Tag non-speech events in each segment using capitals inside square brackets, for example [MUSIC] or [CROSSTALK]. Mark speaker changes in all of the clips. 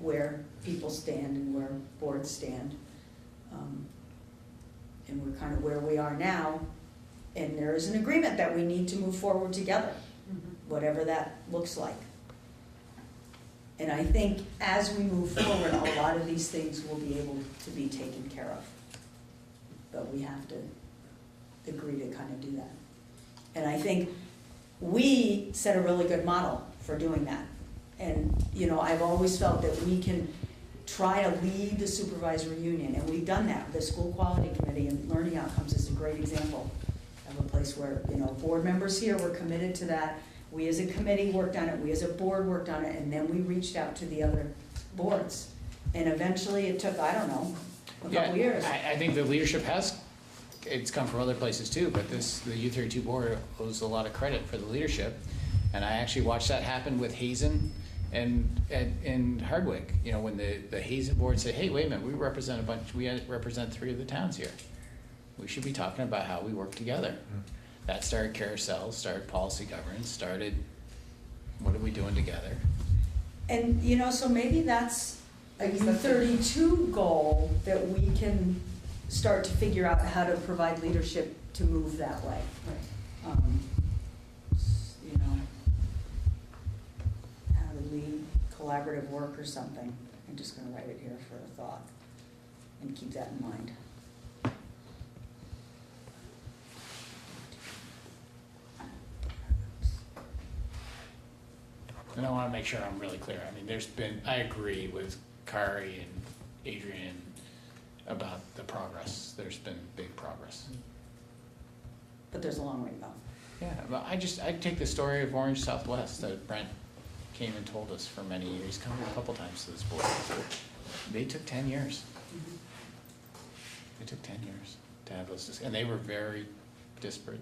Speaker 1: where people stand and where boards stand. Um, And we're kind of where we are now, and there is an agreement that we need to move forward together, whatever that looks like. And I think as we move forward, a lot of these things will be able to be taken care of. But we have to agree to kind of do that. And I think we set a really good model for doing that. And, you know, I've always felt that we can try to lead the supervisory union, and we've done that. The school quality committee and learning outcomes is a great example of a place where, you know, board members here were committed to that. We as a committee worked on it, we as a board worked on it, and then we reached out to the other boards. And eventually, it took, I don't know, a couple years.
Speaker 2: I, I think the leadership has, it's come from other places too, but this, the U thirty-two board owes a lot of credit for the leadership. And I actually watched that happen with Hazen and, and, and Hardwick, you know, when the, the Hazen board said, hey, wait a minute, we represent a bunch, we represent three of the towns here. We should be talking about how we work together. That started carousel, started policy governance, started, what are we doing together?
Speaker 1: And, you know, so maybe that's a U thirty-two goal that we can start to figure out how to provide leadership to move that way. Um, s- You know, how to lead collaborative work or something. I'm just gonna write it here for a thought and keep that in mind.
Speaker 2: And I want to make sure I'm really clear. I mean, there's been, I agree with Kari and Adrian about the progress. There's been big progress.
Speaker 1: But there's a long way to go.
Speaker 2: Yeah, but I just, I take the story of Orange Southwest that Brent came and told us for many years, come a couple times to this board. They took ten years. It took ten years to have those, dis- and they were very disparate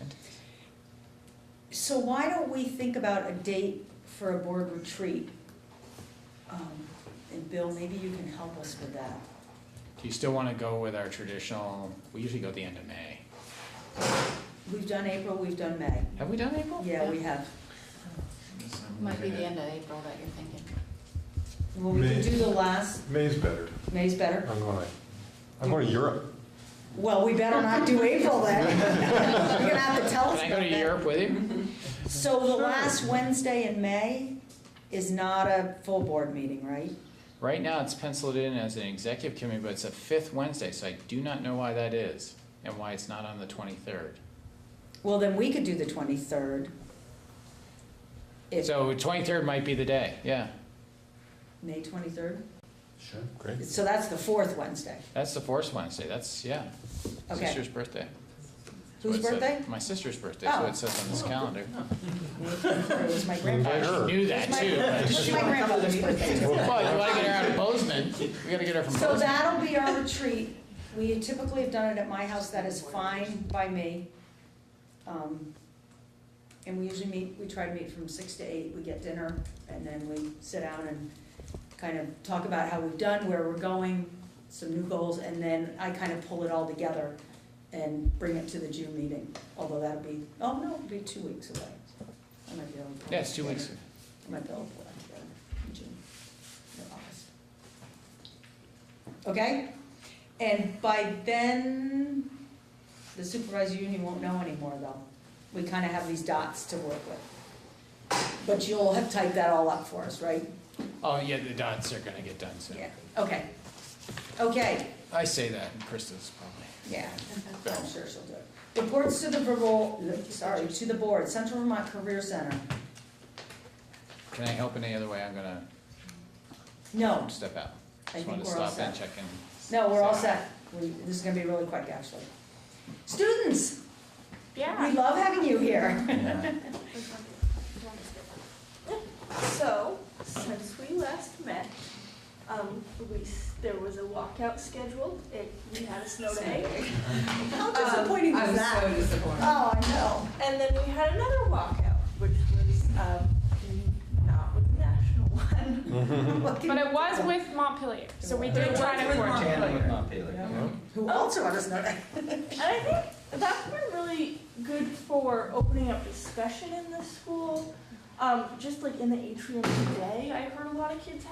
Speaker 2: entities.
Speaker 1: So why don't we think about a date for a board retreat? Um, And Bill, maybe you can help us with that.
Speaker 2: Do you still want to go with our traditional, we usually go at the end of May.
Speaker 1: We've done April, we've done May.
Speaker 2: Have we done April?
Speaker 1: Yeah, we have.
Speaker 3: Might be the end of April that you're thinking.
Speaker 1: Well, we can
Speaker 4: May.
Speaker 1: do the last,
Speaker 4: May's better.
Speaker 1: May's better.
Speaker 4: I'm going, I'm going to Europe.
Speaker 1: Well, we better not do April then. You're gonna have to tell us
Speaker 2: Can I go
Speaker 1: about
Speaker 2: to
Speaker 1: that.
Speaker 2: Europe with you?
Speaker 1: So the last Wednesday in May is not a full board meeting, right?
Speaker 2: Right now, it's penciled in as an executive committee, but it's a fifth Wednesday, so I do not know why that is and why it's not on the twenty-third.
Speaker 1: Well, then we could do the twenty-third. If,
Speaker 2: So twenty-third might be the day, yeah.
Speaker 1: May twenty-third?
Speaker 4: Sure. Great.
Speaker 1: So that's the fourth Wednesday.
Speaker 2: That's the fourth Wednesday, that's, yeah.
Speaker 1: Okay.
Speaker 2: Sister's birthday. That's
Speaker 1: Whose
Speaker 2: what it said.
Speaker 1: birthday?
Speaker 2: My sister's birthday, so
Speaker 1: Oh.
Speaker 2: it says on this calendar.
Speaker 1: May 23rd was my
Speaker 2: I
Speaker 1: grandfather's.
Speaker 2: actually knew that
Speaker 1: My-
Speaker 2: too. but-
Speaker 1: It was my grandfather's birthday. too.
Speaker 2: Well, you wanna get her out of Bozeman, we gotta get her from
Speaker 1: So
Speaker 2: Bozeman.
Speaker 1: that'll be our retreat. We typically have done it at my house, that is fine by me. Um, And we usually meet, we try to meet from six to eight, we get dinner, and then we sit down and kind of talk about how we've done, where we're going, some new goals, and then I kind of pull it all together and bring it to the June meeting, although that'll be, oh no, it'll be two weeks away. I might be able to pull
Speaker 2: Yeah,
Speaker 1: it
Speaker 2: it's two weeks.
Speaker 1: together. I might be able to pull that together in June or August. Okay? And by then, the supervisory union won't know anymore though. We kind of have these dots to work with. But you'll have typed that all up for us, right?
Speaker 2: Oh, yeah, the dots are gonna get done soon.
Speaker 1: Yeah, okay. Okay,
Speaker 2: I say that, and Krista's probably.
Speaker 1: yeah, I'm sure she'll do it. Reports to the, Vermont- sorry, to the board, Central Vermont Career Center.
Speaker 2: Can I help in any other way? I'm gonna
Speaker 1: No,
Speaker 2: step out.
Speaker 1: I
Speaker 2: Just wanted
Speaker 1: think
Speaker 2: to
Speaker 1: we're all
Speaker 2: stop and
Speaker 1: set.
Speaker 2: check in.
Speaker 1: No, we're all
Speaker 2: Say hi.
Speaker 1: set. We, this is gonna be really quick, actually. Students, we
Speaker 3: Yeah.
Speaker 1: love having you here.
Speaker 5: So, since we last met, um, we, s- there was a walkout scheduled, it, we had a snow day.
Speaker 6: Um,
Speaker 1: How disappointing was that?
Speaker 3: so disappointed.
Speaker 1: Oh, I know.
Speaker 5: And then we had another walkout, which was, um, not with the national [LAUGHS] one.
Speaker 1: What
Speaker 6: But
Speaker 1: can-
Speaker 6: it was with Montpelier, so we
Speaker 1: It
Speaker 6: did
Speaker 1: was
Speaker 6: try to
Speaker 1: with
Speaker 6: coordinate.
Speaker 1: Who also let us know that?
Speaker 5: And I think that's been really good for opening up discussion in the school. Um, just like in the atrium today, I heard a lot of kids